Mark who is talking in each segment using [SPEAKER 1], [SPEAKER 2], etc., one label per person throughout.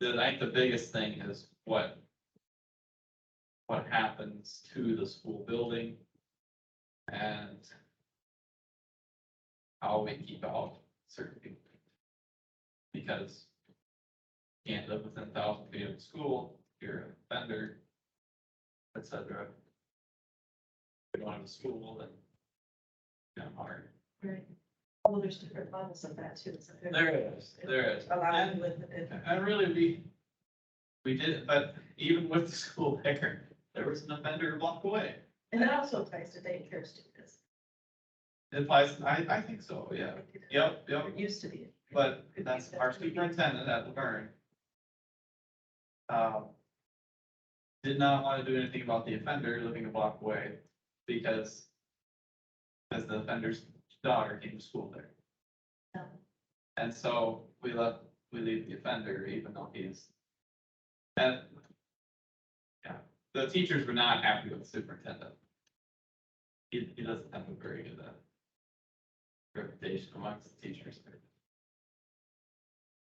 [SPEAKER 1] the, I think the biggest thing is what what happens to the school building and how we keep out certain people. Because you can't live within thousand feet of the school, you're a vendor, et cetera. If you don't have a school, then kind of hard.
[SPEAKER 2] Right. Well, there's different levels of that too. so there's
[SPEAKER 1] There is, there is.
[SPEAKER 2] Allowed
[SPEAKER 1] And-
[SPEAKER 2] with it.
[SPEAKER 1] And really, we, we did, but even with the school there, there was an offender a block away.
[SPEAKER 2] And that also applies to daycare students.
[SPEAKER 1] It applies, I, I think so, yeah. Yep, yep,
[SPEAKER 2] It used to be.
[SPEAKER 1] but that's our superintendent at Laverne. Um, did not want to do anything about the offender living a block away because because the offender's daughter came to school there.
[SPEAKER 2] Um,
[SPEAKER 1] And so we left, we leave the offender even though he's. And. Yeah, the teachers were not happy with the superintendent. He, he doesn't have a very good. uh, Reputation amongst the teachers.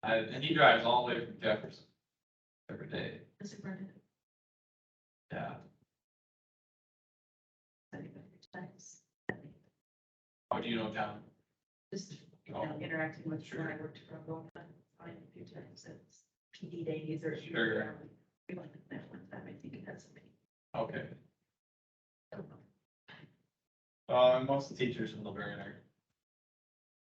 [SPEAKER 1] I, and he drives all the way from Jefferson. Every day,
[SPEAKER 2] the superintendent
[SPEAKER 1] yeah,
[SPEAKER 2] said it many times.
[SPEAKER 1] oh, do you know John?
[SPEAKER 2] Just, you know, interacting with, when I worked for a long time, I a few times, it's PD days or.
[SPEAKER 1] Sure.
[SPEAKER 2] We went to that one time, I think it had somebody.
[SPEAKER 1] Okay,
[SPEAKER 2] I don't know.
[SPEAKER 1] uh, most of the teachers in Laverne are.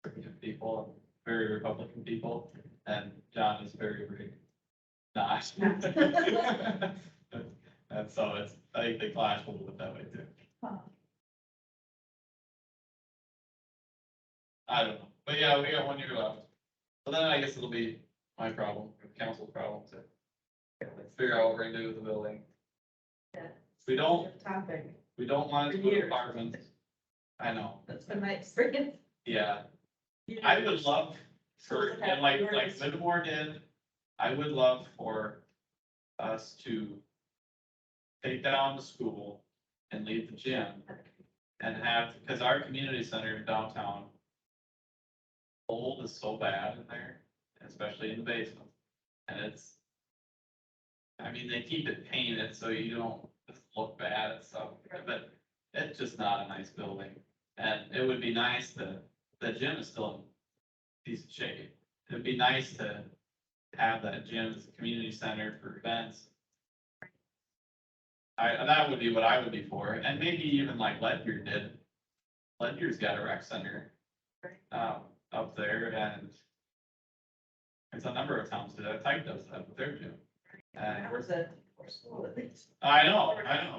[SPEAKER 1] pretty good people, very Republican people, and John is very, very not. And so it's, I think they clash a little bit that way too.
[SPEAKER 2] Huh.
[SPEAKER 1] I don't know, but yeah, we got one year left. But then I guess it'll be my problem, or council's problem to figure out what we're gonna do with the building.
[SPEAKER 2] Yeah.
[SPEAKER 1] We don't,
[SPEAKER 2] Topic,
[SPEAKER 1] we don't want to
[SPEAKER 2] For
[SPEAKER 1] put
[SPEAKER 2] years.
[SPEAKER 1] apartments. I know,
[SPEAKER 2] that's been my experience.
[SPEAKER 1] yeah, I would love for, and like, like Livermore did, I would love for us to take down the school and leave the gym and have, because our community center in downtown. Old is so bad in there, especially in the basement, and it's. I mean, they keep it painted so you don't just look bad and stuff, but it's just not a nice building. And it would be nice to, the gym is still in decent shape, it'd be nice to have that gym as a community center for events. I, and that would be what I would be for, and maybe even like Ledyard did. Ledyard's got a rec center.
[SPEAKER 2] Right.
[SPEAKER 1] Um, up there and. It's a number of towns that have typed those up with their gym.
[SPEAKER 2] That was a, or school at least.
[SPEAKER 1] I know, I know.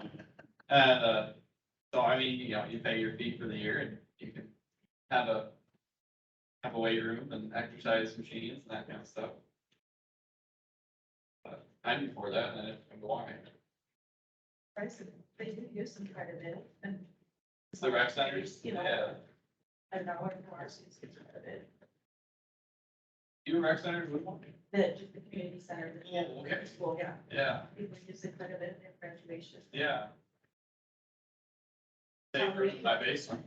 [SPEAKER 1] And, uh, so I mean, you know, you pay your fee for the year and you can have a, have a weight room and exercise machines and that kind of stuff. But I'm before that and if I'm going,
[SPEAKER 2] price of- they do use them quite a bit and.
[SPEAKER 1] it's the rec centers,
[SPEAKER 2] You
[SPEAKER 1] yeah.
[SPEAKER 2] know. A dollar more, so it's quite a bit,
[SPEAKER 1] You rec centers would want, it.
[SPEAKER 2] that just the community center. that-
[SPEAKER 1] Oh, okay.
[SPEAKER 2] School, yeah,
[SPEAKER 1] yeah,
[SPEAKER 2] people use it quite a bit in their graduation,
[SPEAKER 1] yeah. Safer than my basement,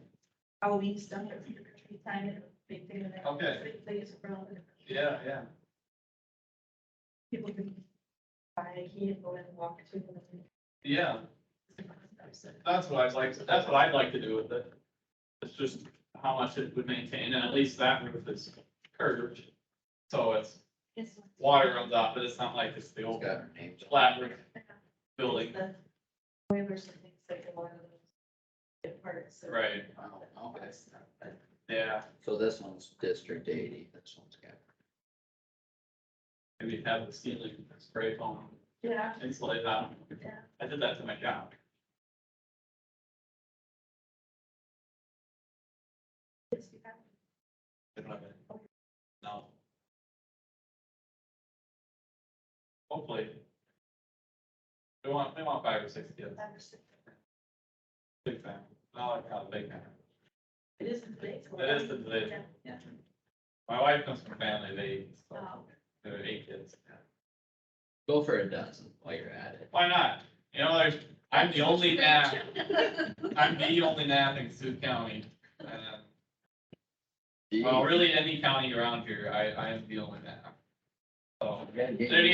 [SPEAKER 2] Halloween stuff, or trick or treat time, and a big thing in there.
[SPEAKER 1] Okay.
[SPEAKER 2] They use it for all the.
[SPEAKER 1] yeah, yeah.
[SPEAKER 2] People can buy a key and go in and walk to them.
[SPEAKER 1] Yeah,
[SPEAKER 2] So,
[SPEAKER 1] that's what I'd like, that's what I'd like to do with it. It's just how much it would maintain, and at least that roof is curved. So it's,
[SPEAKER 2] it's-
[SPEAKER 1] water runs off, but it's not like it's the
[SPEAKER 3] It's
[SPEAKER 1] old
[SPEAKER 3] got her name.
[SPEAKER 1] flat roof building.
[SPEAKER 2] The Waivers and things like a lot of those. Parts.
[SPEAKER 1] Right,
[SPEAKER 3] Oh, okay.
[SPEAKER 1] yeah,
[SPEAKER 3] So this one's District eighty, this one's got.
[SPEAKER 1] and we have the ceiling spray foam
[SPEAKER 2] Yeah,
[SPEAKER 1] insulated out.
[SPEAKER 2] yeah.
[SPEAKER 1] I did that to my job.
[SPEAKER 2] It's become
[SPEAKER 1] I don't have it. No. Hopefully. We want, we want five or six kids,
[SPEAKER 2] five or six.
[SPEAKER 1] big family, not like a big family.
[SPEAKER 2] It is in today's. world.
[SPEAKER 1] It is in today's
[SPEAKER 2] Yeah, Yeah.
[SPEAKER 1] My wife comes from a family of eight, so
[SPEAKER 2] Oh,
[SPEAKER 1] there are eight kids.
[SPEAKER 3] Go for a dozen while you're at it.
[SPEAKER 1] Why not? You know, there's, I'm the only nap, I'm the only nap in Sioux County. Uh, Well, really, any county around here, I, I am the only nap. So,
[SPEAKER 3] Yeah, yeah.
[SPEAKER 1] there you